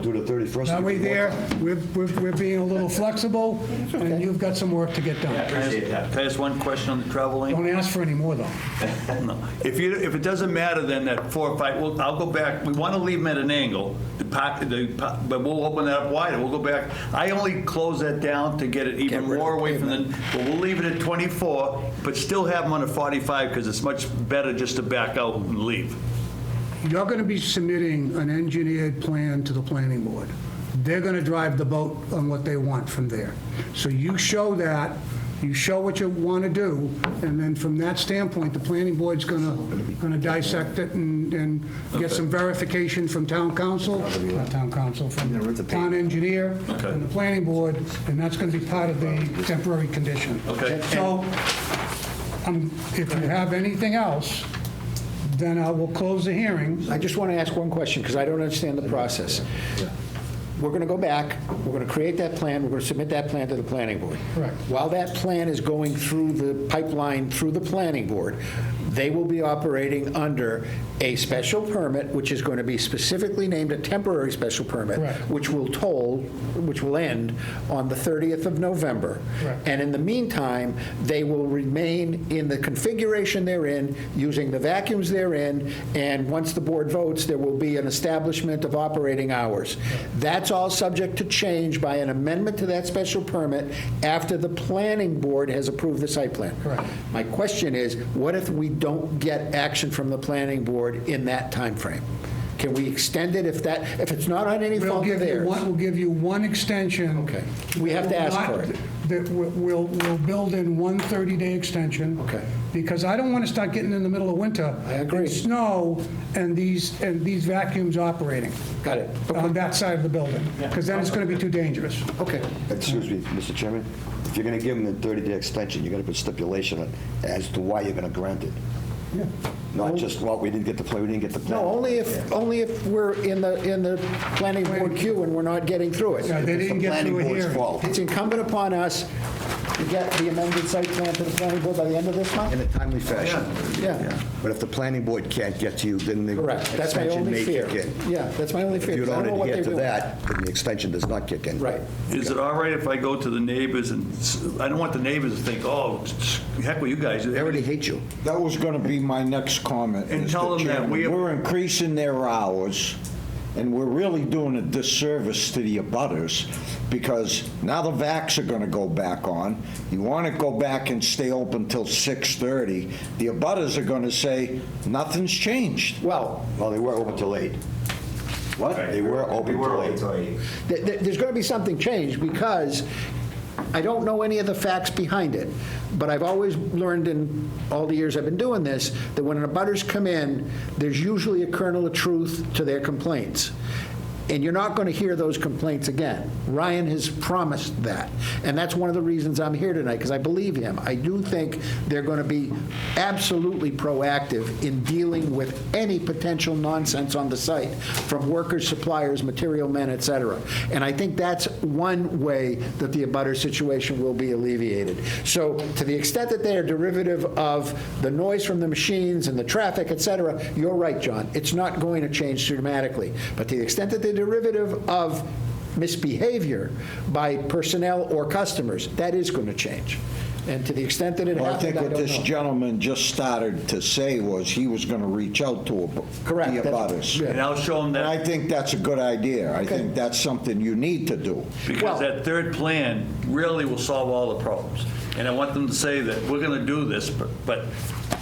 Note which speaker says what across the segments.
Speaker 1: do the 31st.
Speaker 2: Are we there? We're, we're we're being a little flexible, and you've got some work to get done.
Speaker 3: Appreciate that.
Speaker 4: Can I ask one question on the travel lane?
Speaker 2: Don't ask for any more, though.
Speaker 4: No. If you, if it doesn't matter, then that four or five, well, I'll go back, we want to leave them at an angle, the pa- the, pa- but we'll open that up wider, we'll go back. I only close that down to get it even more away from the, but we'll leave it at 24, but still have them on a 45, because it's much better just to back out and leave.
Speaker 2: You're going to be submitting an engineered plan to the planning board. They're going to drive the boat on what they want from there. So you show that, you show what you want to do, and then from that standpoint, the planning board's going to, going to dissect it and, and get some verification from town council, not town council, from town engineer, and the planning board, and that's going to be part of the temporary condition.
Speaker 4: Okay.
Speaker 2: So, um, if you have anything else, then I will close the hearing.
Speaker 5: I just want to ask one question, because I don't understand the process. We're going to go back, we're going to create that plan, we're going to submit that plan to the planning board.
Speaker 2: Correct.
Speaker 5: While that plan is going through the pipeline, through the planning board, they will be operating under a special permit, which is going to be specifically named a temporary special permit,
Speaker 2: Correct.
Speaker 5: which will toll, which will end on the 30th of November.
Speaker 2: Correct.
Speaker 5: And in the meantime, they will remain in the configuration they're in, using the vacuums they're in, and once the board votes, there will be an establishment of operating hours. That's all subject to change by an amendment to that special permit after the planning board has approved the site plan.
Speaker 2: Correct.
Speaker 5: My question is, what if we don't get action from the planning board in that timeframe? Can we extend it if that, if it's not on any
Speaker 2: We'll
Speaker 5: fault of
Speaker 2: give you
Speaker 5: theirs?
Speaker 2: one, we'll give you one extension.
Speaker 5: Okay. We have to ask for it.
Speaker 2: That we- we'll, we'll build in one 30-day extension.
Speaker 5: Okay.
Speaker 2: Because I don't want to start getting in the middle of winter.
Speaker 5: I agree.
Speaker 2: and Snow and these, and these vacuums operating
Speaker 5: Got it.
Speaker 2: on that side of the building. Because then it's going to be too dangerous.
Speaker 5: Okay.
Speaker 1: Excuse me, Mr. Chairman, if you're going to give them the 30-day extension, you're going to put stipulation on- as to why you're going to grant it. Not just, well, we didn't get the plan, we didn't get the plan.
Speaker 5: No, only if, only if we're in the, in the planning board queue and we're not getting through
Speaker 2: Yeah,
Speaker 5: it.
Speaker 2: They
Speaker 1: It's the
Speaker 2: didn't get
Speaker 1: planning
Speaker 2: through it
Speaker 1: board's
Speaker 2: here.
Speaker 1: fault.
Speaker 5: It's incumbent upon us to get the amended site plan to the planning board by the end of this
Speaker 1: In
Speaker 5: month?
Speaker 1: a timely fashion.
Speaker 5: Yeah. Yeah.
Speaker 1: But if the planning board can't get to you, then the
Speaker 5: Correct, that's my
Speaker 1: extension
Speaker 5: only
Speaker 1: may
Speaker 5: fear.
Speaker 1: kick in.
Speaker 5: Yeah, that's my only
Speaker 1: If
Speaker 5: fear.
Speaker 1: you
Speaker 5: 'cause I
Speaker 1: don't
Speaker 5: know what
Speaker 1: adhere
Speaker 5: they're
Speaker 1: to
Speaker 5: doing.
Speaker 1: that, then the extension does not kick in.
Speaker 5: Right.
Speaker 4: Is it all right if I go to the neighbors and, s- I don't want the neighbors to think, oh, heck with you guys.
Speaker 1: They already hate you.
Speaker 6: That was going to be my next comment.
Speaker 4: And
Speaker 6: Mr.
Speaker 4: tell them that
Speaker 6: Chairman.
Speaker 4: we-
Speaker 6: We're increasing their hours, and we're really doing a disservice to the abutters, because now the vacs are going to go back on. You want to go back and stay open till 6:30. The abutters are going to say, nothing's changed.
Speaker 5: Well,
Speaker 1: Well, they were open till eight. What? They were open till eight.
Speaker 5: th- th- there's going to be something changed because I don't know any of the facts behind it, but I've always learned in all the years I've been doing this, that when abutters come in, there's usually a kernel of truth to their complaints. And you're not going to hear those complaints again. Ryan has promised that. And that's one of the reasons I'm here tonight, because I believe him. I do think they're going to be absolutely proactive in dealing with any potential nonsense on the site, from workers, suppliers, material men, et cetera. And I think that's one way that the abutter situation will be alleviated. So to the extent that they are derivative of the noise from the machines and the traffic, et cetera, you're right, John. It's not going to change dramatically. But to the extent that they're derivative of misbehavior by personnel or customers, that is going to change. And to the extent that it
Speaker 6: Well, I
Speaker 5: happened,
Speaker 6: think
Speaker 5: I
Speaker 6: what this
Speaker 5: don't know.
Speaker 6: gentleman just started to say was he was going to reach out to ab-
Speaker 5: Correct,
Speaker 6: the
Speaker 5: that's-
Speaker 6: abutters.
Speaker 5: yeah.
Speaker 4: And I'll show them that.
Speaker 6: And I think that's a good idea. I think that's something you need to do.
Speaker 4: Because
Speaker 5: Well-
Speaker 4: that third plan really will solve all the problems. And I want them to say that, we're going to do this, but- but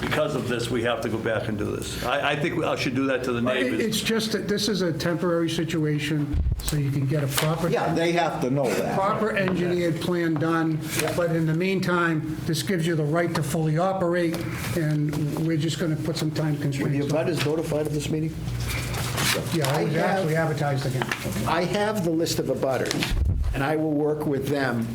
Speaker 4: because of this, we have to go back and do this. I, I think I should do that to the
Speaker 2: It-
Speaker 4: neighbors.
Speaker 2: It's just that this is a temporary situation, so you can get a proper.
Speaker 6: Yeah, they have to know that.
Speaker 2: proper engineered plan done, but in the meantime, this gives you the right to fully operate, and we're just going to put some time
Speaker 1: Were the
Speaker 2: constraints on it.
Speaker 1: abutters notified of this meeting?
Speaker 2: Yeah, it was
Speaker 5: I have-
Speaker 2: actually advertised again.
Speaker 5: I have the list of abutters, and I will work with them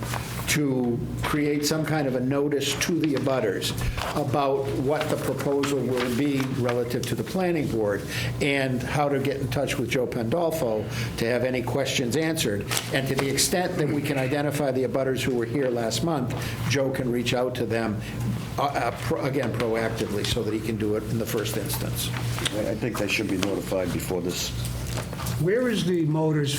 Speaker 5: to create some kind of a notice to the abutters about what the proposal will be relative to the planning board, and how to get in touch with Joe Pandolfo to have any questions answered. And to the extent that we can identify the abutters who were here last month, Joe can reach out to them, uh, uh, pro- again, proactively, so that he can do it in the first instance.
Speaker 1: I I think they should be notified before this
Speaker 2: Where is the motors